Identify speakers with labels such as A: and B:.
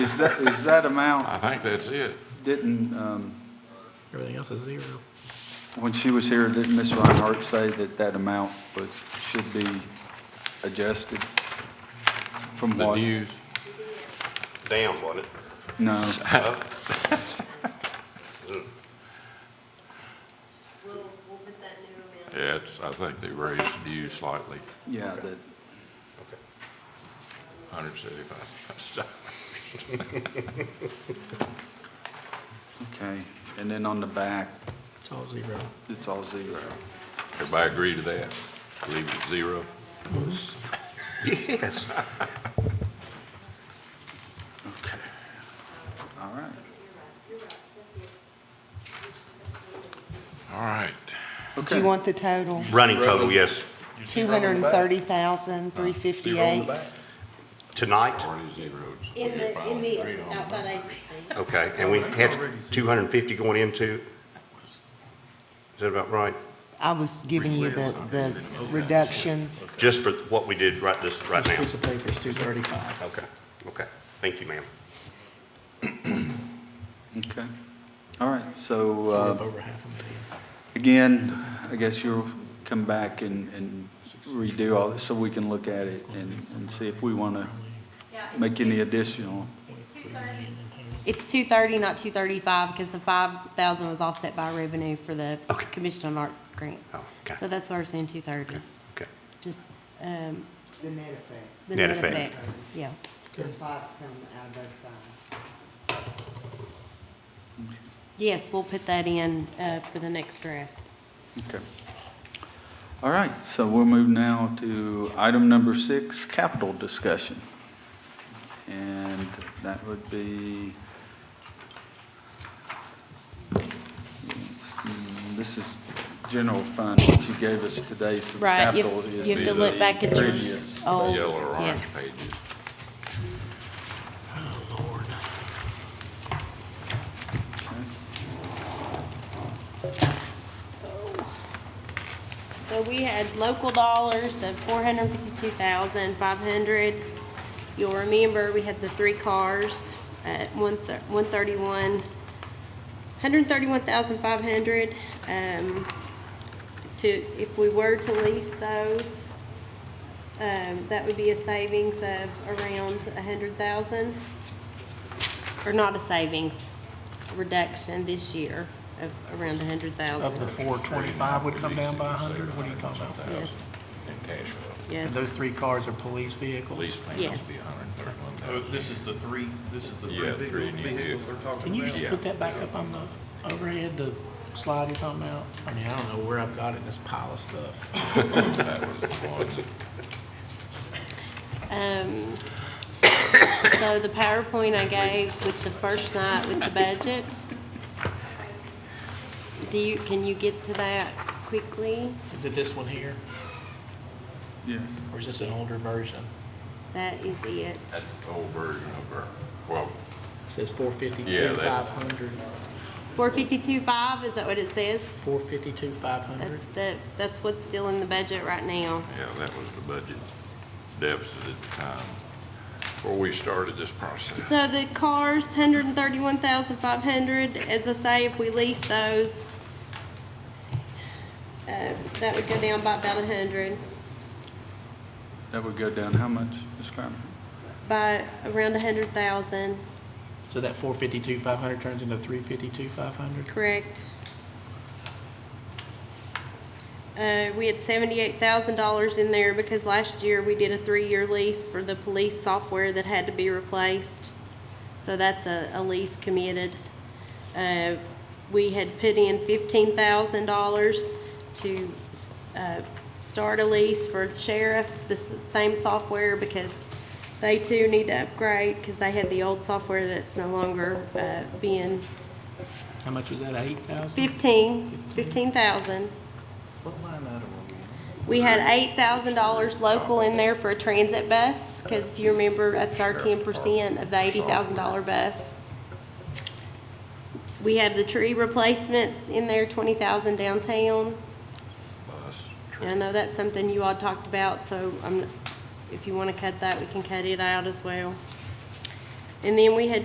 A: Is that, is that amount,
B: I think that's it.
A: didn't, um,
C: Everything else is zero.
A: when she was here, didn't Ms. Reinhardt say that that amount was, should be adjusted? From
B: The
A: what?
B: news,
D: down, wasn't it?
A: No,
E: We'll, we'll put that new amount.
B: yeah, it's, I think they raised news slightly,
A: yeah, that,
B: hundred seventy-five.
A: okay. And then on the back,
C: It's all zero.
A: it's all zero.
B: Everybody agree to that? Leave it at zero?
D: Yes.
A: Okay. All right.
B: All right.
F: Do you want the total?
D: Running total, yes.
F: Two hundred and thirty thousand, three fifty-eight.
D: Tonight,
B: Already zeroed. so
E: In
B: we
E: the, in
B: finally agreed
E: the
B: on it.
E: outside agency.
D: okay, and we had 250 going into, is that about right?
F: I was giving you the, the reductions.
D: Just for what we did right this, right
C: This
D: now?
C: piece of paper is two thirty-five.
D: Okay, okay. Thank you, ma'am.
A: Okay. All right, so, uh,
C: Over half a million.
A: Again, I guess you'll come back and, and redo all this so we can look at it and, and see if we want to make any additional.
E: It's two thirty, not two thirty-five, because the five thousand was offset by revenue for the
D: Okay.
E: Commission on Arts grant.
D: Oh, okay.
E: So that's why we're saying two thirty,
D: Okay.
E: just, um,
F: The net effect,
E: the
D: Net
E: net
D: effect.
E: effect, yeah.
F: because five's coming out of both sides.
E: Yes, we'll put that in, uh, for the next draft.
A: Okay. All right, so we'll move now to item number six, capital discussion. And that would be, this is general fund, what you gave us today, so the
E: Right, you,
A: capital is.
E: you have to look
A: the
E: back at your
A: previous.
B: The
E: old,
B: Yellow or orange
E: yes.
B: pages.
E: So we had local dollars of four hundred fifty-two thousand, five hundred. You'll remember, we had the three cars at one thir- one thirty-one, hundred thirty-one thousand, five hundred. Um, to, if we were to lease those, um, that would be a savings of around a hundred thousand. Or not a savings, a reduction this year of around a hundred thousand.
C: Of the four twenty-five would come down by a hundred, what are you talking about?
E: Yes,
B: In Cashville,
E: yes.
C: And those three cars are police vehicles?
B: lease payments
E: Yes.
B: be hundred and thirty-one
G: Oh,
B: thousand.
G: This is the three, this is the
B: Yeah, three
G: three
B: new
G: vehicles
B: vehicles.
G: we're talking about.
C: Can you just put that back up on the overhead, the slide you're talking about? I mean, I don't know where I've got it in this pile of stuff.
B: That was the one.
E: Um, so the PowerPoint I gave with the first night with the budget, do you, can you get to that quickly?
C: Is it this one here,
A: Yes.
C: or is this an older version?
E: That is it.
B: That's the old version of our, well,
C: It Says four
B: Yeah,
C: fifty-two,
B: that-
C: five hundred,
E: Four fifty-two five, is that what it says?
C: four fifty-two, five hundred?
E: That's the, that's what's still in the budget right now.
B: yeah, that was the budget deficit at the time, before we started this process.
E: So the cars, hundred and thirty-one thousand five hundred, as I say, if we lease those, uh, that would go down by about a hundred,
A: That would go down how much, Ms. Kramer?
E: by around a hundred thousand,
C: So that four fifty-two, five hundred turns into three fifty-two, five hundred?
E: Correct. Uh, we had seventy-eight thousand dollars in there because last year we did a three-year lease for the police software that had to be replaced. So that's a, a lease committed. Uh, we had put in fifteen thousand dollars to, s- uh, start a lease for the sheriff, the s- same software because they too need to upgrade because they had the old software that's no longer, uh, being
C: How much was that, eight thousand?
E: Fifteen, fifteen thousand.
C: What line item are we on?
E: We had eight thousand dollars local in there for a transit bus, because if you remember, that's our ten percent of the eighty thousand dollar bus. We have the tree replacements in there, twenty thousand downtown.
B: Bus,
E: And I know that's something you all talked about, so i if you want to cut that, we can cut it out as well. And then we had